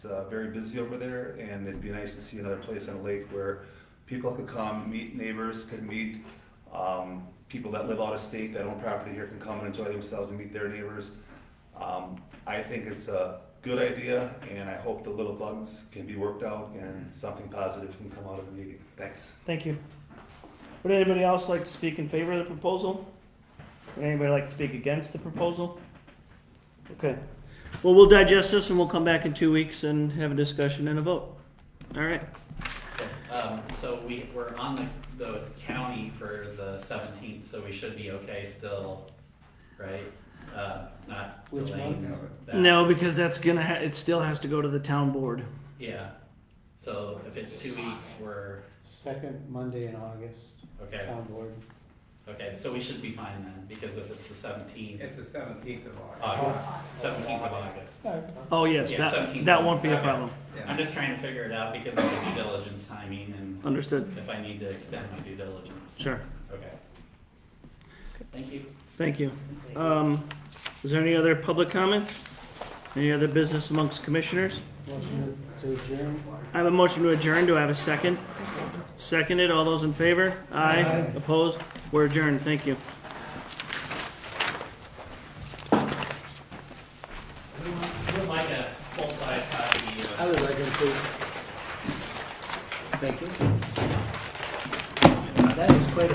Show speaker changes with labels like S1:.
S1: It's uh, very busy over there, and it'd be nice to see another place on the lake where people could come, meet neighbors, could meet um, people that live out of state that own property here can come and enjoy themselves and meet their neighbors. Um, I think it's a good idea, and I hope the little bugs can be worked out and something positive can come out of the meeting. Thanks.
S2: Thank you. Would anybody else like to speak in favor of the proposal? Would anybody like to speak against the proposal? Okay. Well, we'll digest this and we'll come back in two weeks and have a discussion and a vote. All right.
S3: Um, so we, we're on the, the county for the seventeenth, so we should be okay still, right? Uh, not
S4: Which
S3: delaying
S4: month?
S3: that.
S2: No, because that's gonna, ha- it still has to go to the town board.
S3: Yeah, so if it's two weeks, we're,
S4: Second Monday in August,
S3: okay,
S4: town board.
S3: okay, so we should be fine then, because if it's the seventeenth,
S5: It's the seventeenth of August.
S3: August, seventeenth of August.
S2: Oh, yes,
S3: Yeah,
S2: that,
S3: 17.
S2: that won't be a
S3: Okay.
S2: problem.
S3: I'm just trying to figure it out because of the due diligence timing and
S2: Understood.
S3: if I need to extend my due diligence,
S2: Sure.
S3: okay. Thank you.
S2: Thank you. Um, is there any other public comments? Any other business amongst commissioners?
S4: Motion to adjourn.
S2: I have a motion to adjourn. Do I have a second? Seconded. All those in favor? Aye. Opposed? We're adjourned. Thank you.
S3: Who would like a full-size copy of?
S4: I would like them, please. Thank you.